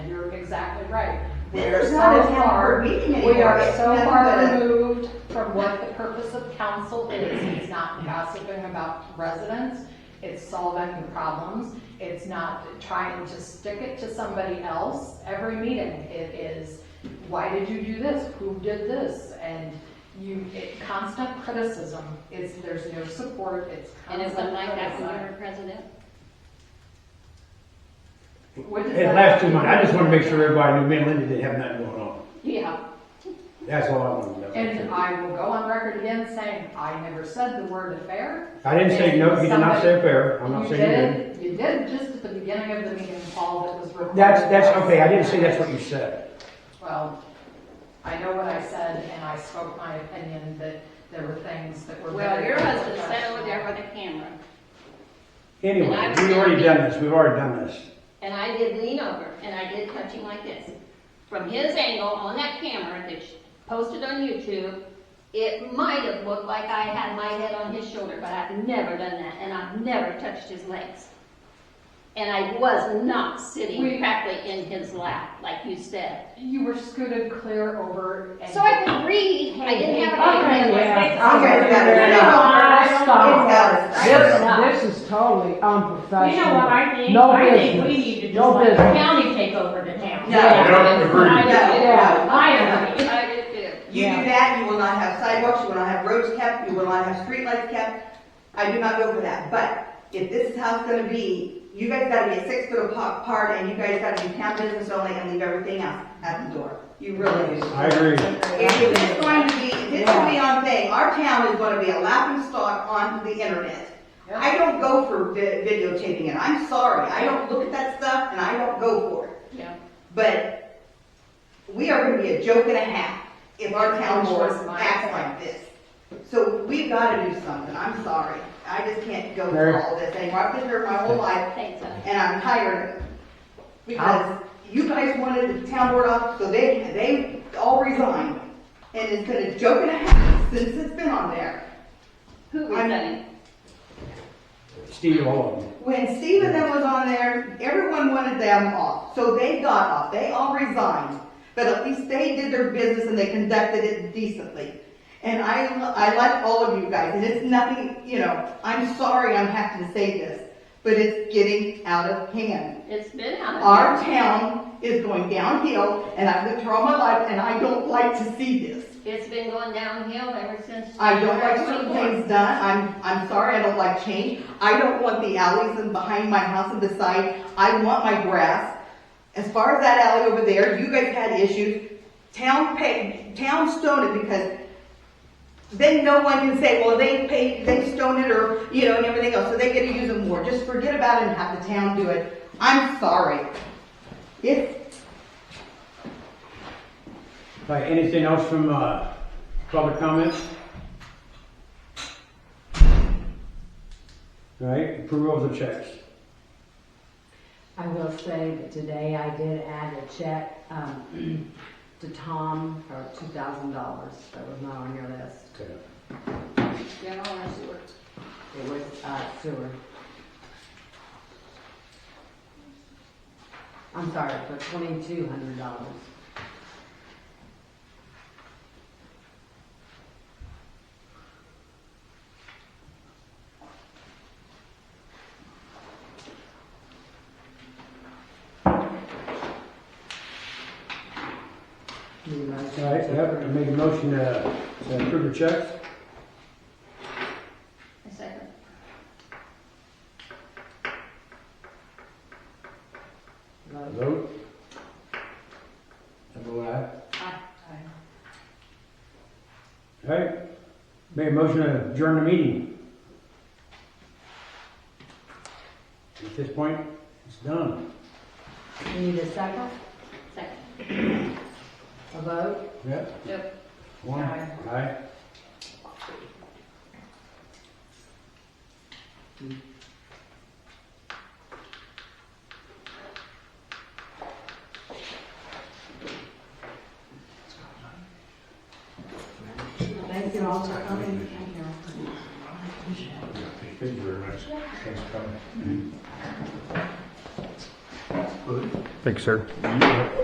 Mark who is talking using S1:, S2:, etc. S1: exactly right. We are
S2: There's
S1: so
S2: not an
S1: far,
S2: hour meeting anymore.
S1: we are
S2: It's
S1: so
S2: nothing
S1: far
S2: but a-
S1: removed from what the purpose of council is. It's not gossiping about residents, it's solving the problems, it's not trying to stick it to somebody else every meeting. It is, why did you do this? Who did this? And you, it- constant criticism, it's, there's no support, it's constant
S3: And it's something like that when you
S1: criticism.
S3: were president?
S1: What does
S4: It
S1: that-
S4: lasts too much. I just want to make sure everybody knew me and Linda didn't have nothing going on.
S1: Yeah.
S4: That's all I wanted to
S1: And
S4: know.
S1: I will go on record again saying, I never said the word affair.
S4: I didn't say, no, you did not say fair. I'm
S1: You
S4: not saying you did.
S1: did, you did just at the beginning of the meeting, Paul, that was recorded.
S4: That's, that's, okay, I didn't say that's what you said.
S1: Well, I know what I said, and I spoke my opinion that there were things that were.
S3: Well,
S1: very
S3: your husband sat over
S1: unprofessional.
S3: there with a camera,
S4: Anyway,
S3: And I was
S4: we've already
S3: happy.
S4: done this, we've already done this.
S3: and I did lean over, and I did touch him like this. From his angle on that camera that's posted on YouTube, it might have looked like I had my head on his shoulder, but I've never done that, and I've never touched his legs. And I was not
S1: We-
S3: sitting practically in his lap, like you said.
S1: You were scooted clear over. and-
S3: So I could read, I didn't have
S5: Okay,
S3: a.
S5: yeah.
S2: Okay,
S5: Okay,
S2: got it.
S5: yeah,
S2: It's
S5: Stop.
S2: got us.
S5: This, this is totally
S6: You know what
S5: unprofessional.
S6: I think?
S5: No
S6: I think we
S5: business.
S6: need to just
S5: No
S6: let the
S5: business.
S6: county take over the town.
S2: No. I
S7: don't agree.
S6: I
S2: No, no.
S6: I agree.
S3: I did too.
S2: You do that, you will not have sidewalks, you will not have roads kept, you will not have streetlights kept. I do not go for that, but if this is how it's gonna be, you guys gotta be six foot apart and you guys gotta do town business only and leave everything else at the door. You really do.
S4: I agree.
S2: If it is going to be, if this will be on thing, our town is gonna be a laughing stock on the internet. I don't go for vi- videotaping it, I'm sorry, I don't look at that stuff and I don't go for it.
S1: Yeah.
S2: But we are gonna be a joke and a half if our town board
S1: Which was my
S2: acts
S1: point.
S2: like this. So we've gotta do something, I'm sorry, I just can't go
S4: Mary?
S2: through all this anymore, I've been here my whole life
S3: Thanks, uh,
S2: and I'm tired of it. Because you guys wanted the town board off, so they, they all resigned. And it's been a joke and a half since it's been on there.
S3: Who was
S2: I'm-
S3: that?
S4: Steve, all of them.
S2: When Steve and them was on there, everyone wanted them off, so they got off, they all resigned. But at least they did their business and they conducted it decently. And I, I like all of you guys, and it's nothing, you know, I'm sorry I'm having to say this, but it's getting out of hand.
S3: It's been out of.
S2: Our town is going downhill, and I've lived here all my life, and I don't like to see this.
S3: It's been going downhill ever since.
S2: I don't like certain
S3: 24.
S2: things done, I'm, I'm sorry, I don't like change. I don't want the alleys and behind my house and beside, I want my grass. As far as that alley over there, you guys had issues, town paid, town stoned it because then no one can say, well, they paid, they stoned it or, you know, and everything else, so they get to use it more. Just forget about it and have the town do it. I'm sorry. It's
S4: Right, anything else from, uh, public comments? All right, approval of the checks.
S5: I will say that today I did add a check, um, to Tom for two thousand dollars. That was not on your list.
S4: Okay.
S3: General or sewer.
S5: It was, uh, sewer. I'm sorry, for twenty-two hundred dollars. Need a motion
S4: All right,
S5: to
S4: yep, I
S5: approve?
S4: made a motion to to approve the checks.
S3: A second.
S5: Vote.
S4: Vote. I vote aye. All right, make a motion to adjourn the meeting. At this point, it's done.
S5: You Need a second,
S3: Second.
S5: a vote?
S4: Yep.
S3: Yep.
S4: One,
S1: Aye.
S4: aye.
S5: Thank you all for coming.
S7: Thank you very much. Thanks for coming.
S8: Thanks, sir.